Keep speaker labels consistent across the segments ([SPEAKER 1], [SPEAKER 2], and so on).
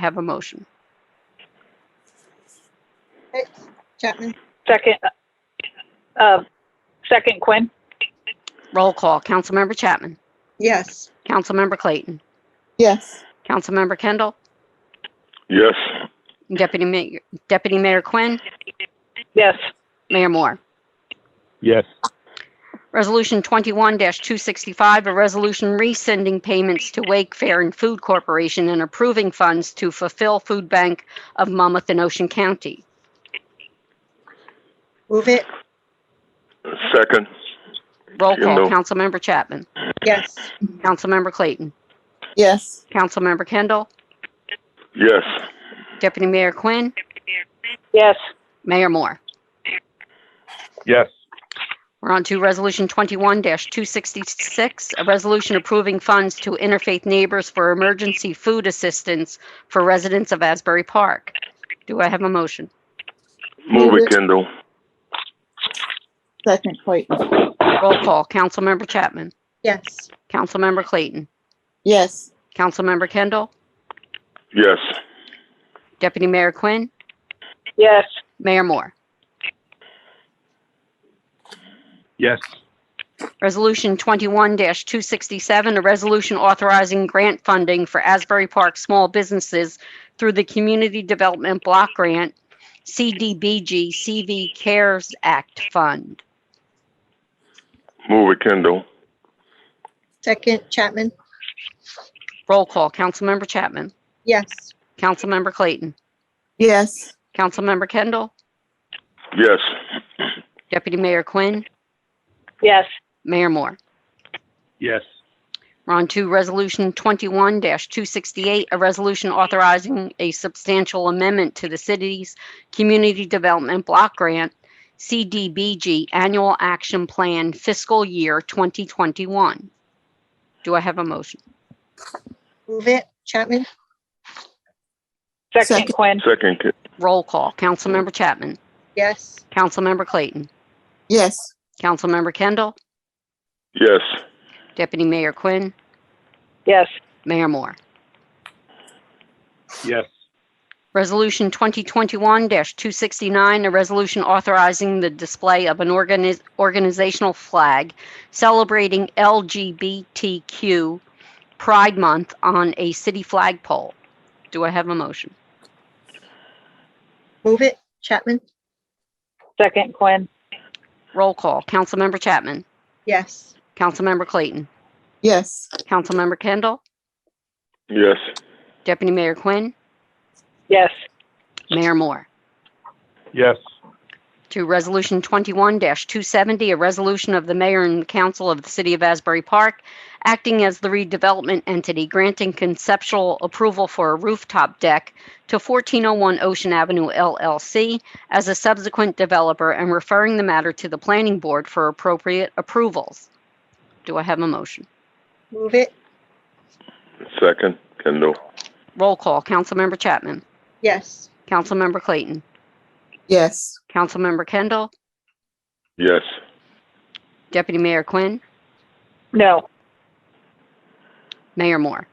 [SPEAKER 1] have a motion.
[SPEAKER 2] Chapman,
[SPEAKER 3] Second, uh, second Quinn,
[SPEAKER 1] Roll call. Councilmember Chapman.
[SPEAKER 2] yes.
[SPEAKER 1] Councilmember Clayton.
[SPEAKER 2] Yes.
[SPEAKER 1] Councilmember Kendall.
[SPEAKER 4] Yes.
[SPEAKER 1] Deputy Mayor, Deputy Mayor Quinn.
[SPEAKER 3] yes.
[SPEAKER 1] Mayor Moore.
[SPEAKER 4] Yes.
[SPEAKER 1] Resolution 21-265, a resolution rescinding payments to Wake Fair and Food Corporation and approving funds to fulfill Food Bank of Monmouth and Ocean County.
[SPEAKER 2] Move it,
[SPEAKER 4] Second.
[SPEAKER 1] Roll call.
[SPEAKER 4] Kendall.
[SPEAKER 1] Councilmember Chapman.
[SPEAKER 2] yes.
[SPEAKER 1] Councilmember Clayton.
[SPEAKER 2] Yes.
[SPEAKER 1] Councilmember Kendall.
[SPEAKER 4] Yes.
[SPEAKER 1] Deputy Mayor Quinn.
[SPEAKER 3] Yes,
[SPEAKER 1] Mayor Moore.
[SPEAKER 4] Yes.
[SPEAKER 1] We're on to Resolution 21-266, a resolution approving funds to Interfaith Neighbors for emergency food assistance for residents of Asbury Park. Do I have a motion?
[SPEAKER 4] Move
[SPEAKER 2] Move
[SPEAKER 4] it,
[SPEAKER 2] it.
[SPEAKER 4] Kendall.
[SPEAKER 2] Second, Clayton.
[SPEAKER 1] Roll call. Councilmember Chapman.
[SPEAKER 2] Yes.
[SPEAKER 1] Councilmember Clayton.
[SPEAKER 2] Yes.
[SPEAKER 1] Councilmember Kendall.
[SPEAKER 4] Yes.
[SPEAKER 1] Deputy Mayor Quinn.
[SPEAKER 3] yes,
[SPEAKER 1] Mayor Moore.
[SPEAKER 4] Yes.
[SPEAKER 1] Resolution 21-267, a resolution authorizing grant funding for Asbury Park small businesses through the Community Development Block Grant, CDBG CV CARES Act Fund.
[SPEAKER 4] Move it, Kendall.
[SPEAKER 2] Second, Chapman,
[SPEAKER 1] Roll call. Councilmember Chapman.
[SPEAKER 2] yes.
[SPEAKER 1] Councilmember Clayton.
[SPEAKER 2] Yes.
[SPEAKER 1] Councilmember Kendall.
[SPEAKER 4] Yes.
[SPEAKER 1] Deputy Mayor Quinn.
[SPEAKER 3] yes,
[SPEAKER 1] Mayor Moore.
[SPEAKER 4] Yes.
[SPEAKER 1] We're on to Resolution 21-268, a resolution authorizing a substantial amendment to the city's Community Development Block Grant, CDBG Annual Action Plan Fiscal Year 2021. Do I have a motion?
[SPEAKER 2] Move it, Chapman,
[SPEAKER 3] second
[SPEAKER 2] Second.
[SPEAKER 3] Quinn,
[SPEAKER 4] Second, Ke-
[SPEAKER 1] Roll call. Councilmember Chapman.
[SPEAKER 2] yes.
[SPEAKER 1] Councilmember Clayton.
[SPEAKER 2] Yes.
[SPEAKER 1] Councilmember Kendall.
[SPEAKER 4] yes.
[SPEAKER 1] Deputy Mayor Quinn.
[SPEAKER 3] yes,
[SPEAKER 1] Mayor Moore.
[SPEAKER 4] Yes.
[SPEAKER 1] Resolution 2021-269, a resolution authorizing the display of an organi- organizational flag celebrating LGBTQ Pride Month on a city flagpole. Do I have a motion?
[SPEAKER 2] Move it, Chapman,
[SPEAKER 3] second Quinn,
[SPEAKER 1] Roll call. Councilmember Chapman.
[SPEAKER 2] yes.
[SPEAKER 1] Councilmember Clayton.
[SPEAKER 2] Yes.
[SPEAKER 1] Councilmember Kendall.
[SPEAKER 4] Yes.
[SPEAKER 1] Deputy Mayor Quinn.
[SPEAKER 3] yes,
[SPEAKER 1] Mayor Moore.
[SPEAKER 4] Yes.
[SPEAKER 1] To Resolution 21-270, a resolution of the mayor and council of the city of Asbury Park, acting as the redevelopment entity, granting conceptual approval for a rooftop deck to 1401 Ocean Avenue LLC as a subsequent developer and referring the matter to the planning board for appropriate approvals. Do I have a motion?
[SPEAKER 2] Move it,
[SPEAKER 4] Second, Kendall.
[SPEAKER 1] Roll call. Councilmember Chapman.
[SPEAKER 2] yes.
[SPEAKER 1] Councilmember Clayton.
[SPEAKER 2] Yes.
[SPEAKER 1] Councilmember Kendall.
[SPEAKER 4] Yes.
[SPEAKER 1] Deputy Mayor Quinn.
[SPEAKER 3] no,
[SPEAKER 1] Mayor Moore.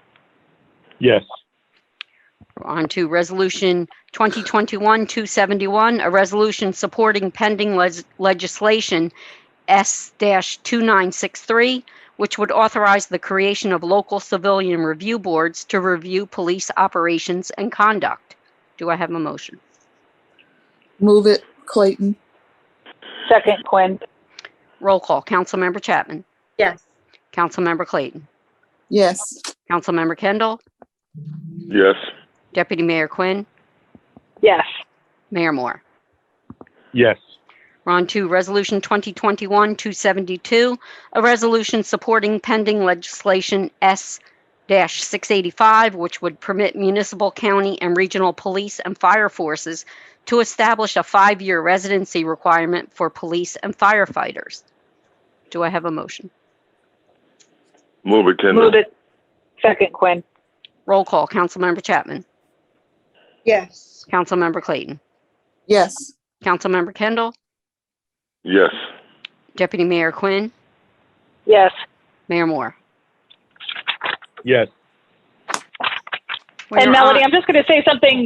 [SPEAKER 4] Yes.
[SPEAKER 1] On to Resolution 2021-271, a resolution supporting pending les- legislation S-2963, which would authorize the creation of local civilian review boards to review police operations and conduct. Do I have a motion?
[SPEAKER 5] Move it, Clayton.
[SPEAKER 3] second Quinn,
[SPEAKER 1] Roll call. Councilmember Chapman.
[SPEAKER 2] Yes.
[SPEAKER 1] Councilmember Clayton.
[SPEAKER 5] Yes,
[SPEAKER 1] Councilmember Kendall.
[SPEAKER 4] Yes.
[SPEAKER 1] Deputy Mayor Quinn.
[SPEAKER 3] yes,
[SPEAKER 1] Mayor Moore.
[SPEAKER 4] Yes.
[SPEAKER 1] We're on to Resolution 2021-272, a resolution supporting pending legislation S-685, which would permit municipal, county, and regional police and fire forces to establish a five-year residency requirement for police and firefighters. Do I have a motion?
[SPEAKER 4] Move it, Kendall.
[SPEAKER 3] move it, second Quinn,
[SPEAKER 1] Roll call. Councilmember Chapman.
[SPEAKER 2] Yes.
[SPEAKER 1] Councilmember Clayton.
[SPEAKER 5] yes,
[SPEAKER 1] Councilmember Kendall.
[SPEAKER 4] Yes.
[SPEAKER 1] Deputy Mayor Quinn.
[SPEAKER 3] yes,
[SPEAKER 1] Mayor Moore.
[SPEAKER 4] Yes.
[SPEAKER 1] We
[SPEAKER 3] And
[SPEAKER 1] are on-
[SPEAKER 3] Melody, I'm just going to say something